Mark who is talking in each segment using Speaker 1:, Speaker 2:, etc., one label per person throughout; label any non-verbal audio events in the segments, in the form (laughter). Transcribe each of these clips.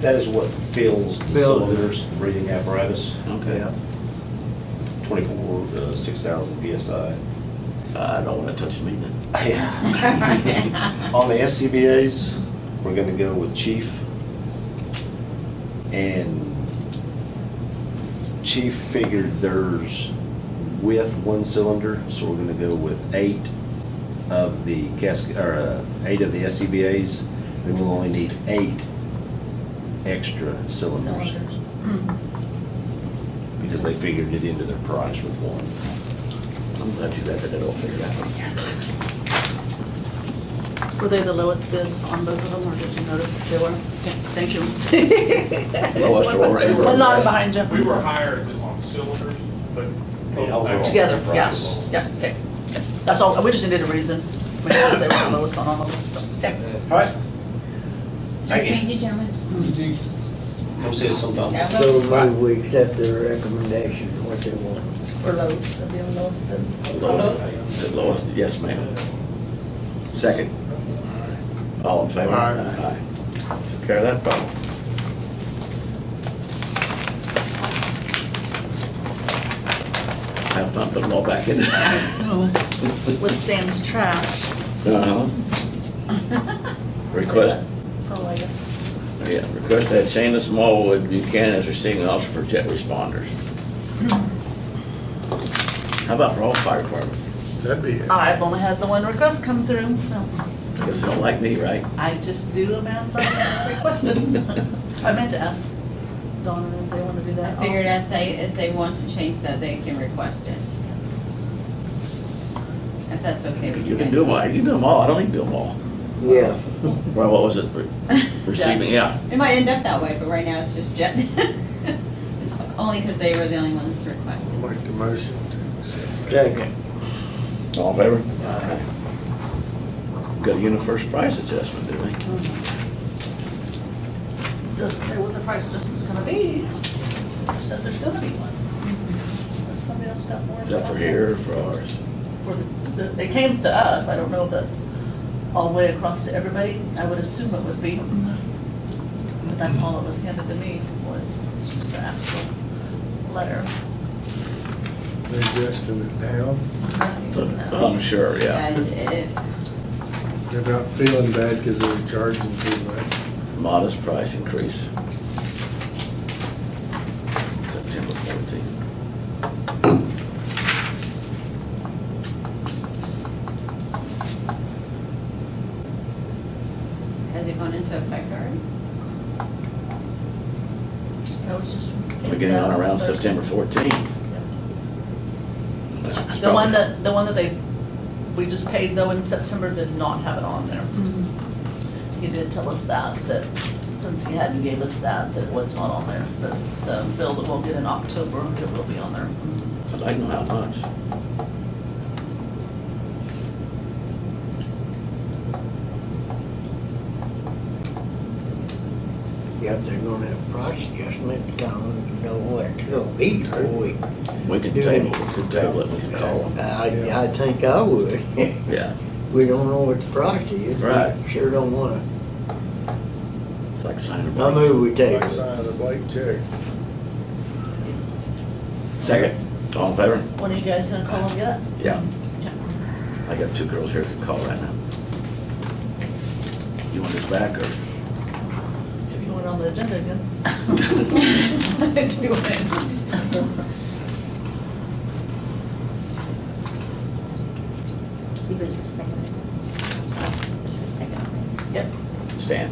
Speaker 1: That is what fills the
Speaker 2: Fills it.
Speaker 1: cylinders, the breathing apparatus,
Speaker 2: Yeah.
Speaker 3: Okay.
Speaker 1: twenty-four, uh, six thousand PSI.
Speaker 3: I Uh, don't want to touch me then.
Speaker 1: On the SCBA's, we're gonna go with chief. And chief figured theirs with one cylinder, so we're gonna go with eight of the casket, or, uh, eight of the SCBA's. Then we'll only need eight extra cylinders,
Speaker 4: Cylinders.
Speaker 1: because they figured it into their price with one.
Speaker 3: I'm glad you got that all figured out.
Speaker 4: Were they the lowest bids on both of them, or did you notice they were? Okay, Thank you.
Speaker 3: Lowest
Speaker 4: (laughs)
Speaker 3: or right?
Speaker 4: One lot behind you.
Speaker 5: We were higher on cylinders, but.
Speaker 4: Together, yeah, yeah, okay. That's all, we just needed a reason. We knew they were the lowest on all of them, so, okay.
Speaker 1: All right.
Speaker 6: Nice
Speaker 1: Thank you.
Speaker 6: meeting you, gentlemen.
Speaker 1: Come see us sometime.
Speaker 6: Yeah.
Speaker 2: So move we accept their recommendation, what they want.
Speaker 4: For lowest, the lowest bid.
Speaker 3: Lowest, the lowest, yes, ma'am. Second. All in favor? Aye. Took care of that problem. Have fun putting them all back in.
Speaker 4: With Sam's trash.
Speaker 3: Uh-huh. (laughs) Request,
Speaker 4: For later.
Speaker 3: yeah, request that Shayna Smallwood Buchanan as receiving officer for jet responders. How about for all fire departments?
Speaker 7: That'd be it.
Speaker 4: I've only had the one request come through, so
Speaker 3: Guess they don't like me, right?
Speaker 4: I just do them as
Speaker 3: (laughs)
Speaker 4: I requested. I meant to ask Donna if they want to do
Speaker 6: I
Speaker 4: that.
Speaker 6: figured as they, as they want to change that, they can request it. If that's okay with
Speaker 3: You
Speaker 6: you guys.
Speaker 3: can do them
Speaker 6: (laughs)
Speaker 3: all, you can do them all, I don't need to do them all.
Speaker 2: Yeah,
Speaker 3: Well, what was it, Re- receiving, yeah,
Speaker 6: It might end up that way, but right now it's just jet. (laughs) Only because they were the only ones requested.
Speaker 7: Make the motion to accept.
Speaker 2: second.
Speaker 3: all in favor? Got a UniFirst price adjustment, didn't we?
Speaker 4: Doesn't say what the price adjustment's gonna be, just said there's gonna be one. Unless somebody else got more.
Speaker 3: Is that for here or for ours?
Speaker 4: For the- the- They came to us, I don't know if that's all the way across to everybody, I would assume it would be. But that's all that was handed to me was just the actual letter.
Speaker 7: They adjusted it down.
Speaker 3: I'm sure, yeah.
Speaker 6: Guys, if,
Speaker 7: They're not feeling bad because they're charging too much.
Speaker 3: Modest price increase. September fourteenth.
Speaker 6: has it gone into effect
Speaker 3: (laughs)
Speaker 6: already? (laughs)
Speaker 4: That was just.
Speaker 3: Beginning on around September fourteenth.
Speaker 4: The one that, the one that they, we just paid though in September did not have it on there. He did tell us that, that since he hadn't gave us that, that it was not on there. But the bill that we'll get in October, it will be on there.
Speaker 3: I'd like to know how much.
Speaker 2: Yep, they're gonna have price adjustment, don't know what it'll be before we.
Speaker 3: We can
Speaker 2: Yeah.
Speaker 3: table, we can table it, we can call them.
Speaker 2: I, I think I would. (laughs)
Speaker 3: Yeah,
Speaker 2: We don't know what the price is. We
Speaker 3: Right.
Speaker 2: Sure don't wanna.
Speaker 3: it's like signing a
Speaker 2: I
Speaker 3: blank.
Speaker 2: move we take
Speaker 7: Like
Speaker 2: it.
Speaker 7: signing a blank check.
Speaker 3: Second, all in favor?
Speaker 4: When are you guys gonna call and get it?
Speaker 3: Yeah. I got two girls here who can call right now. You want this back or?
Speaker 4: If you want it on the agenda again.
Speaker 6: He was your second. She was second.
Speaker 4: Yep.
Speaker 3: Stan.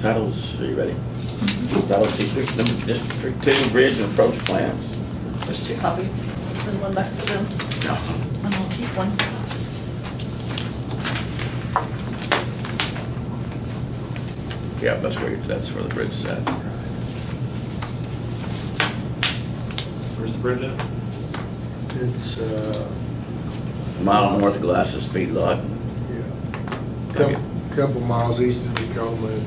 Speaker 3: Titles, are you ready?
Speaker 4: Mm-hmm.
Speaker 3: Title sequence, number, District Two, Bridge and Approach Plans. Let's check.
Speaker 4: Copies, send one back to them,
Speaker 3: No.
Speaker 4: and I'll keep one.
Speaker 3: Yeah, that's where, that's where the bridge is at.
Speaker 5: Where's the bridge at?
Speaker 7: It's, uh,
Speaker 3: Mile north of Glasses Feed Lot.
Speaker 7: yeah, couple, couple miles east of Tacoma and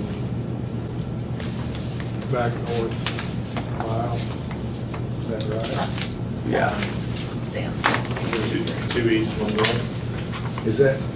Speaker 7: back north a mile. Is that right?
Speaker 4: That's
Speaker 3: Yeah.
Speaker 4: stamps.
Speaker 5: Two, two east, one north.
Speaker 7: Is that